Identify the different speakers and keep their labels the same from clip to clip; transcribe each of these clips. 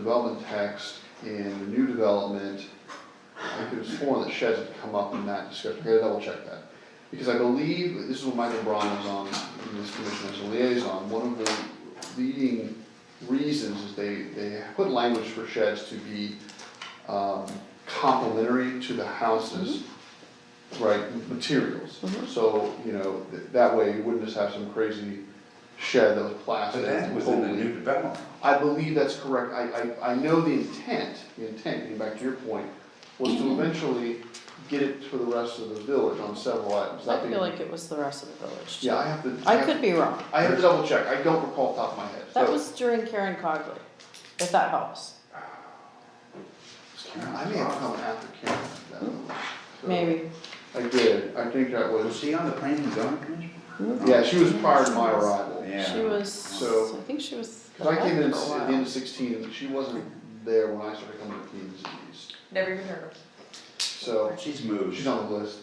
Speaker 1: development text and the new development, I could have sworn that sheds had come up in that discussion, I gotta double check that. Because I believe, this is when Michael Braun was on, in this commission as a liaison, one of the leading reasons is they, they put language for sheds to be, um, complementary to the houses, right, materials.
Speaker 2: Mhm.
Speaker 1: So, you know, th- that way you wouldn't just have some crazy shed that was
Speaker 3: But
Speaker 1: plastic
Speaker 3: that
Speaker 1: and
Speaker 3: was in the
Speaker 1: totally
Speaker 3: new development.
Speaker 1: I believe that's correct, I, I, I know the intent, the intent, getting back to your point, was to
Speaker 2: Mm-hmm.
Speaker 1: eventually get it for the rest of the village on several items, that
Speaker 2: I
Speaker 1: being.
Speaker 2: feel like it was the rest of the village. too.
Speaker 1: Yeah, I have to.
Speaker 2: I
Speaker 1: have-
Speaker 2: could be wrong.
Speaker 1: I have to double check, I don't recall off the top of my head, so.
Speaker 2: That was during Karen Cogley, if that helps.
Speaker 1: I may have come after Karen, that was. so-
Speaker 2: Maybe.
Speaker 1: I did, I think that
Speaker 3: Was
Speaker 1: was,
Speaker 3: she on the planning and zoning commission?
Speaker 1: yeah, she was prior to my arrival.
Speaker 3: Yeah.
Speaker 2: She was,
Speaker 1: So-
Speaker 2: I think she was.
Speaker 1: Cause I came in at
Speaker 2: alive for a
Speaker 1: the
Speaker 2: while.
Speaker 1: end of sixteen, she wasn't there when I started coming to P and Z's,
Speaker 4: Never even heard of.
Speaker 1: so,
Speaker 3: She's moved.
Speaker 1: she's on the list.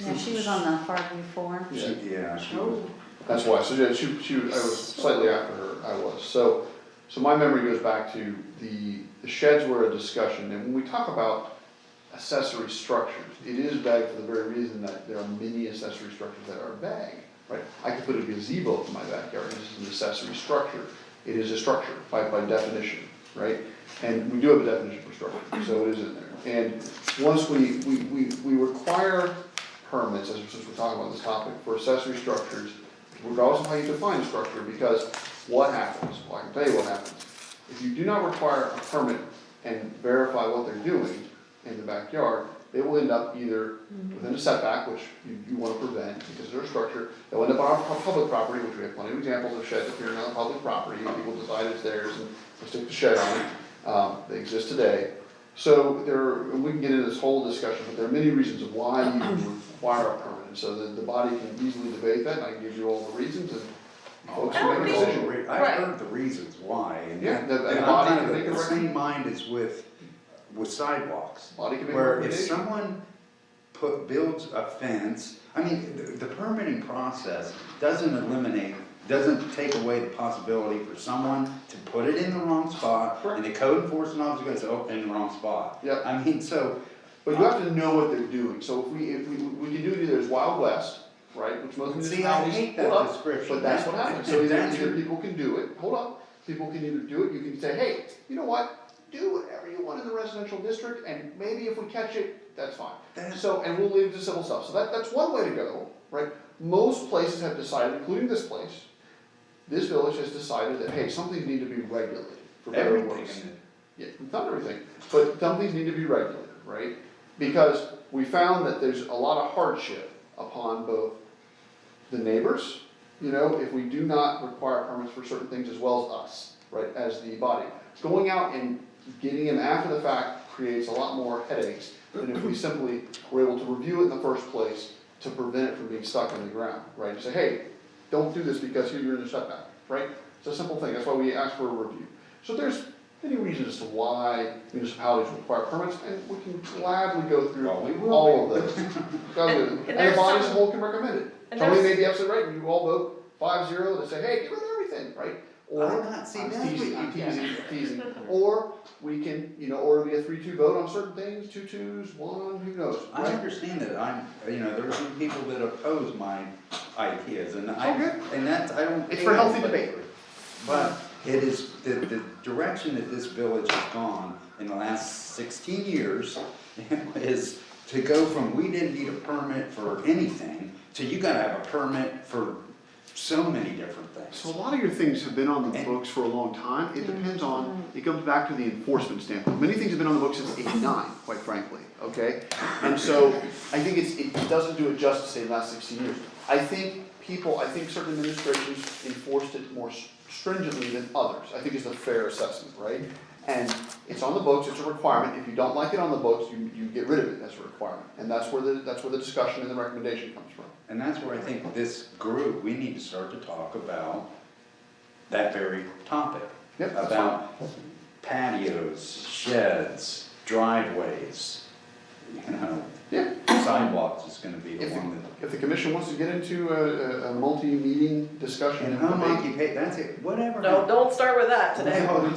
Speaker 5: Yeah, she was on the Farview Forum.
Speaker 1: Yeah.
Speaker 3: She- Yeah, she
Speaker 1: Oh,
Speaker 3: was.
Speaker 1: That's why, so yeah, she, she, I was slightly after her, I was, so, so my memory goes back to the, the sheds were a discussion, and when we talk about accessory structures, it is vague for the very reason that there are many accessory structures that are vague, right? I could put a gazebo in my backyard, this is an accessory structure, it is a structure by, by definition, right? And we do have a definition for structure, so it is in there, and once we, we, we, we require permits, as, since we're talking about this topic, for accessory structures, regardless of how you define structure, because what happens, well, I can tell you what happens. If you do not require a permit and verify what they're doing in the backyard, they will end up either within a setback, which you, you wanna prevent because they're a structure, they'll end up on our public property, which we have plenty of examples of sheds appearing on public property, and people decide it's theirs and they stick the shed on it, um, they exist today. So there, and we can get into this whole discussion, but there are many reasons why you require a permit, and so the, the body can easily debate that, and I can give you all the reasons, and folks
Speaker 3: I
Speaker 1: can
Speaker 3: heard
Speaker 1: make a
Speaker 3: all the
Speaker 1: decision.
Speaker 3: re- Oh, I
Speaker 4: Right.
Speaker 3: heard the reasons why, and
Speaker 1: Yeah,
Speaker 3: that-
Speaker 1: that- that
Speaker 3: and I'm
Speaker 1: body
Speaker 3: kind
Speaker 1: can
Speaker 3: of
Speaker 1: make a
Speaker 3: the same
Speaker 1: recommend-
Speaker 3: mind as with, with sidewalks.
Speaker 1: Body can make a
Speaker 3: Where if
Speaker 1: recommendation.
Speaker 3: someone put, builds a fence, I mean, the, the permitting process doesn't eliminate, doesn't take away the possibility for someone to put it in the wrong spot, and the code enforcement officer goes, oh, in the wrong spot.
Speaker 1: Yep.
Speaker 3: I mean, so,
Speaker 1: But you have to know what they're doing, so if we, if we, we can do either there's Wild West, right, which most
Speaker 3: See, I
Speaker 1: municipalities.
Speaker 3: hate
Speaker 1: hold
Speaker 3: that
Speaker 1: up,
Speaker 3: description.
Speaker 1: But that's what happens, so either,
Speaker 3: That's
Speaker 1: either
Speaker 3: your-
Speaker 1: people can do it, hold up, people can either do it, you can say, hey, you know what? Do whatever you want in the residential district, and maybe if we catch it, that's fine.
Speaker 3: That's-
Speaker 1: So, and we'll leave the civil stuff, so that, that's one way to go, right? Most places have decided, including this place, this village has decided that, hey, some things need to be regulated, for better or worse.
Speaker 3: everything,
Speaker 1: Yeah, not everything, but some things need to be regulated, right? Because we found that there's a lot of hardship upon both the neighbors, you know, if we do not require permits for certain things as well as us, right, as the body. Going out and getting them after the fact creates a lot more headaches than if we simply were able to review it in the first place to prevent it from being stuck in the ground, right? And say, hey, don't do this because here you're in a setback, right? It's a simple thing, that's why we ask for a review. So there's many reasons as to why municipalities require permits, and we can gladly go through
Speaker 3: Well, we will.
Speaker 1: all of those. Gladly.
Speaker 4: And- and
Speaker 1: And the
Speaker 4: there's
Speaker 1: body as a
Speaker 4: some-
Speaker 1: whole can recommend it.
Speaker 4: And
Speaker 1: Tony may
Speaker 4: there's-
Speaker 1: be absolutely right, and you all vote five zero to say, hey, get rid of everything, right? Or,
Speaker 3: I'm not- see,
Speaker 1: I'm
Speaker 3: that's what
Speaker 1: teasing,
Speaker 3: you-
Speaker 1: I'm teasing, teasing, or we can, you know, or it'll be a three two vote on certain things, two twos, one, who knows,
Speaker 3: I
Speaker 1: right?
Speaker 3: understand that, I'm, you know, there are some people that oppose my ideas, and I,
Speaker 1: all good.
Speaker 3: and that's, I don't.
Speaker 1: It's for healthy
Speaker 3: but-
Speaker 1: debate.
Speaker 3: But it is, the, the direction that this village has gone in the last sixteen years is to go from, we didn't need a permit for anything, to you gotta have a permit for so many different
Speaker 1: So a
Speaker 3: things.
Speaker 1: lot of your things have been on the
Speaker 3: And-
Speaker 1: books for a long time, it depends on, it comes back to the enforcement standpoint, many things have been on the books since eighty-nine, quite frankly, okay? And so, I think it's, it doesn't do it justice in the last sixteen years. I think people, I think certain administrations enforced it more stringently than others, I think is a fair assessment, right? And it's on the books, it's a requirement, if you don't like it on the books, you, you get rid of it as a requirement, and that's where the, that's where the discussion and the recommendation comes from.
Speaker 3: And that's where I think this group, we need to start to talk about that very topic.
Speaker 1: Yep, that's
Speaker 3: About patios, sheds, driveways, you know,
Speaker 1: Yeah,
Speaker 3: sidewalks is gonna be the
Speaker 1: If,
Speaker 3: one that.
Speaker 1: the- if the commission wants to get into a, a, a multi-meeting discussion
Speaker 3: And
Speaker 1: and
Speaker 3: home
Speaker 1: debate,
Speaker 3: occupation, that's it, whatever.
Speaker 4: No, don't start with that today.
Speaker 3: Well,